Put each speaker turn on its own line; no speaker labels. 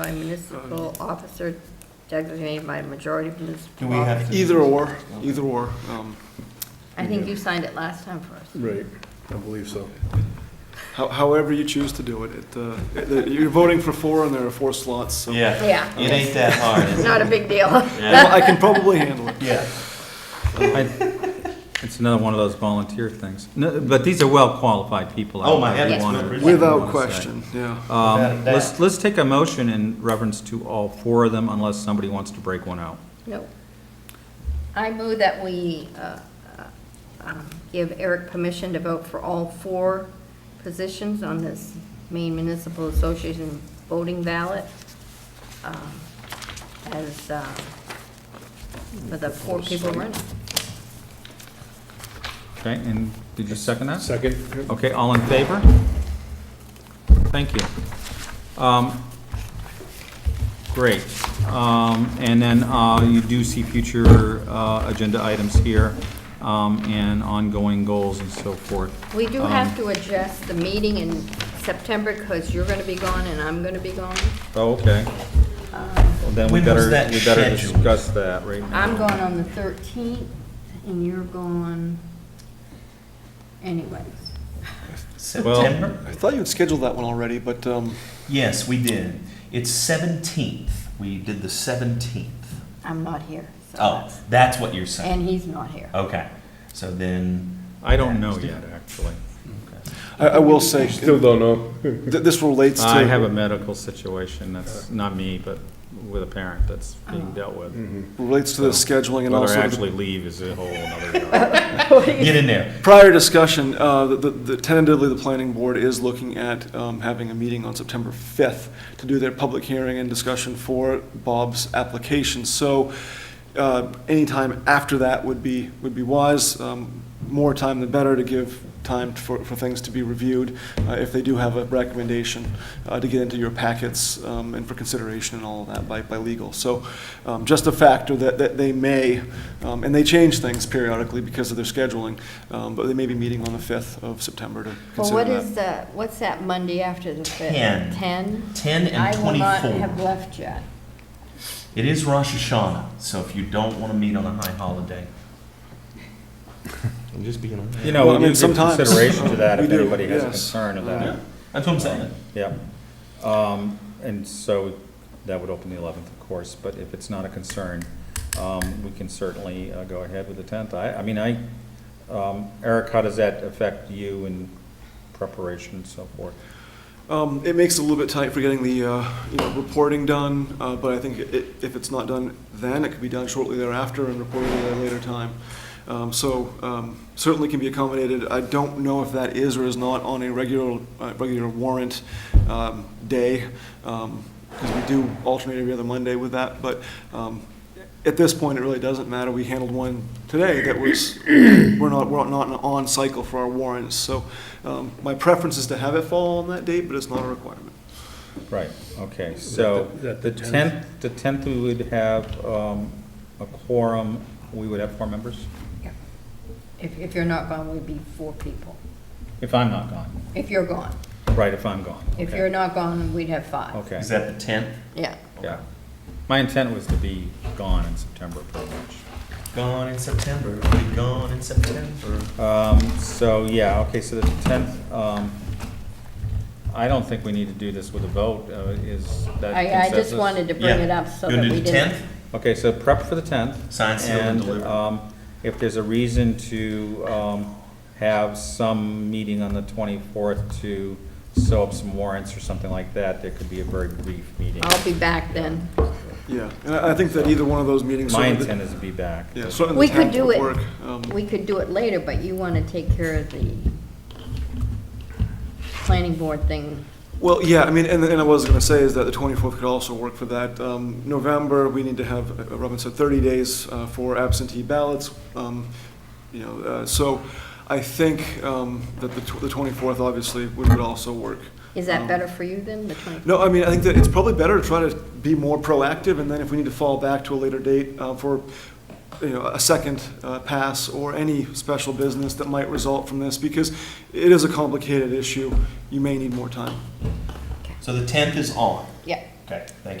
by municipal officer designated by majority of
Um, Do
municipal.
we have to?
Either or, either or. um,
I think you signed it last time for us.
Right, I believe so.
how- However you choose to do it, it, uh, it- you're voting for four and there are four slots, so
Yeah.
Yeah.
It ain't that hard, is
It's
it?
not a big deal.
Yeah.
I can probably handle it.
Yeah.
I- It's another one of those volunteer things. No, But these are well-qualified people. I
Oh, my heavens,
wanna-
no question.
Without
wanna say.
question, yeah.
Without a
Um, Let's,
doubt.
let's take a motion in reference to all four of them unless somebody wants to break one out.
No. I move that we uh, uh, um, give Eric permission to vote for all four positions on this Maine Municipal Association voting ballot um, as, uh, for the four people running.
Okay, and did you second that?
Second?
Okay, all in favor? Thank you. Um, Great. Um, And then uh, you do see future uh, agenda items here um, and ongoing goals and so forth.
We do
Um,
have to adjust the meeting in September because you're going to be gone and I'm going to be gone.
Oh, okay. Well, Then
When
we
was
better,
that
we better
scheduled?
discuss that right now.
I'm gone on the 13th and you're gone anyways.
September?
I thought you had scheduled that one already, but um,
Yes, we did. It's seventeenth. We did the seventeenth.
I'm not here. so
Oh,
that's-
that's what you're saying.
And he's not here.
Okay, so then.
I don't know yet, actually.
I I will say, th-
Still don't know.
this relates to.
I have a medical situation that's not me, but with a parent that's being dealt with.
Mm.
Relates to the scheduling and
Whether I
also the
actually leave is a whole other.
Get in there.
Prior discussion, uh, the- the- the- tentatively, the planning board is looking at um, having a meeting on September 5th to do their public hearing and discussion for Bob's application. So uh, anytime after that would be, would be wise. Um, More time the better to give time for, for things to be reviewed, uh, if they do have a recommendation uh, to get into your packets um, and for consideration and all of that by, by legal. So um, just a factor that, that they may, um, and they change things periodically because of their scheduling, um, but they may be meeting on the 5th of September to
Well,
consider
what
that.
is the, what's that Monday after the 5th?
Ten.
10?
Ten and
I will not have
twenty-four.
left yet.
It is Rosh Hashanah, so if you don't want to meet on a high holiday. I'm just being honest.
You know,
Well, I
we
mean,
do give
sometimes,
consideration to that
we
if
do,
anybody has a
yes.
concern of that.
That's what I'm saying.
Yeah. Um, and so that would open the eleventh, of course, but if it's not a concern, um, we can certainly uh, go ahead with the tenth. I, I mean, I, um, Eric, how does that affect you in preparation and so forth?
Um, It makes it a little bit tight for getting the, uh, you know, reporting done, uh, but I think i- if it's not done then, it could be done shortly thereafter and reported at a later time. Um, So um, certainly can be accommodated. I don't know if that is or is not on a regular, uh, regular warrant um, day, because we do alternate every other Monday with that, but um, at this point, it really doesn't matter. We handled one today that was, we're not, we're not on cycle for our warrants. So um, my preference is to have it fall on that date, but it's not a requirement.
Right, okay, so
Is that
the
the-
tenth, the tenth, we would have, um, a quorum, we would have four members,
Yeah. If, if you're not gone, we'd be four people.
if I'm not gone,
If you're gone.
right, if I'm gone.
If
okay.
you're not gone, we'd have five.
Okay,
Is that the tenth?
Yeah.
yeah. My intent was to be gone in September pretty much.
Gone in September, we gone in September.
Um, so, yeah, okay, so the tenth, um, I don't think we need to do this with a vote, uh, is that
I, I just
consensus?
wanted to bring it up so that we didn't.
You want to do the tenth?
Okay, so prep for the tenth.
Sign, seal, and deliver.
um, if there's a reason to, um, have some meeting on the twenty-fourth to sew up some warrants or something like that, there could be a very brief meeting.
I'll be back then.
Yeah, and I I think that either one of those meetings.
My
certainly the-
intent is to be back.
Yeah, certainly
We
the
could
10th
do
would
it,
work. um,
we could do it later, but you want to take care of the planning board thing.
Well, yeah, I mean, and, and I was gonna say is that the twenty-fourth could also work for that. Um, November, we need to have, uh, Robin said, thirty days, uh, for absentee ballots. Um, you know, uh, so I think, um, that the tw- the twenty-fourth obviously would, would also work.
Is
Um,
that better for you then, the 24th?
No, I mean, I think that it's probably better to try to be more proactive, and then if we need to fall back to a later date uh, for, you know, a second uh, pass or any special business that might result from this, because it is a complicated issue, you may need more time.
So the tenth is on.
Yeah,
Okay, thank you.